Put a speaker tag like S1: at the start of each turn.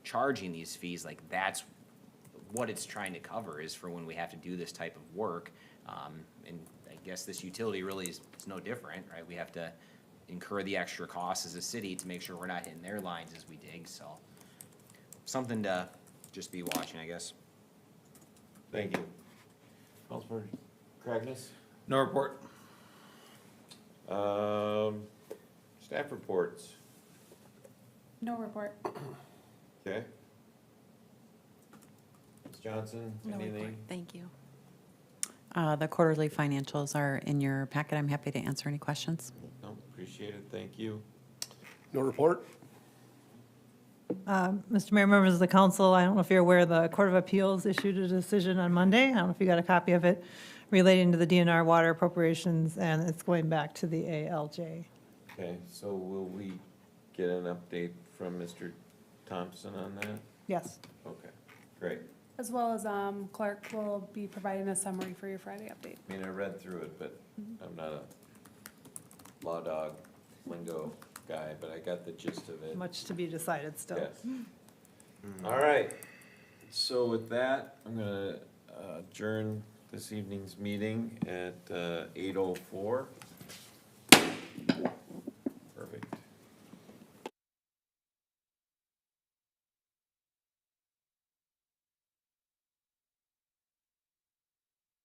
S1: charging these fees, like that's what it's trying to cover is for when we have to do this type of work. Um, and I guess this utility really is, it's no different, right? We have to incur the extra costs as a city to make sure we're not hitting their lines as we dig, so. Something to just be watching, I guess.
S2: Thank you. Councilman Cragness?
S3: No report.
S2: Um, staff reports,
S4: No report.
S2: okay? Ms. Johnson,
S5: No report.
S2: anything?
S5: Thank you. Uh, The quarterly financials are in your packet. I'm happy to answer any questions.
S2: No, appreciate it, thank you.
S6: No report?
S7: Mr. Mayor, members of the council, I don't know if you're aware, the Court of Appeals issued a decision on Monday. I don't know if you got a copy of it relating to the DNR water appropriations, and it's going back to the ALJ.
S2: Okay, so will we get an update from Mr. Thompson on that?
S7: Yes,
S2: Okay, great.
S4: As well as um, Clark will be providing a summary for your Friday update.
S2: I mean, I read through it, but
S5: Mm-hmm.
S2: I'm not a law dog lingo guy, but I got the gist of it.
S7: much to be decided still.
S2: Yes. All right, so with that, I'm gonna uh, adjourn this evening's meeting at uh, eight oh four.